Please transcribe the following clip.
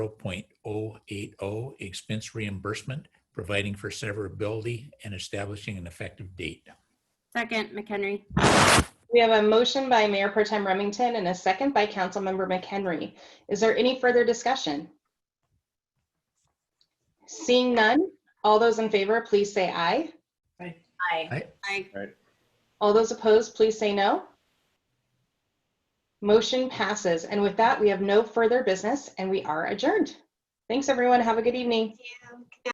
0.080 expense reimbursement, providing for severability and establishing an effective date. Second, McHenry. We have a motion by Mayor Pro Tem Remington and a second by Councilmember McHenry. Is there any further discussion? Seeing none, all those in favor, please say aye. Aye. Aye. All those opposed, please say no. Motion passes. And with that, we have no further business and we are adjourned. Thanks, everyone. Have a good evening.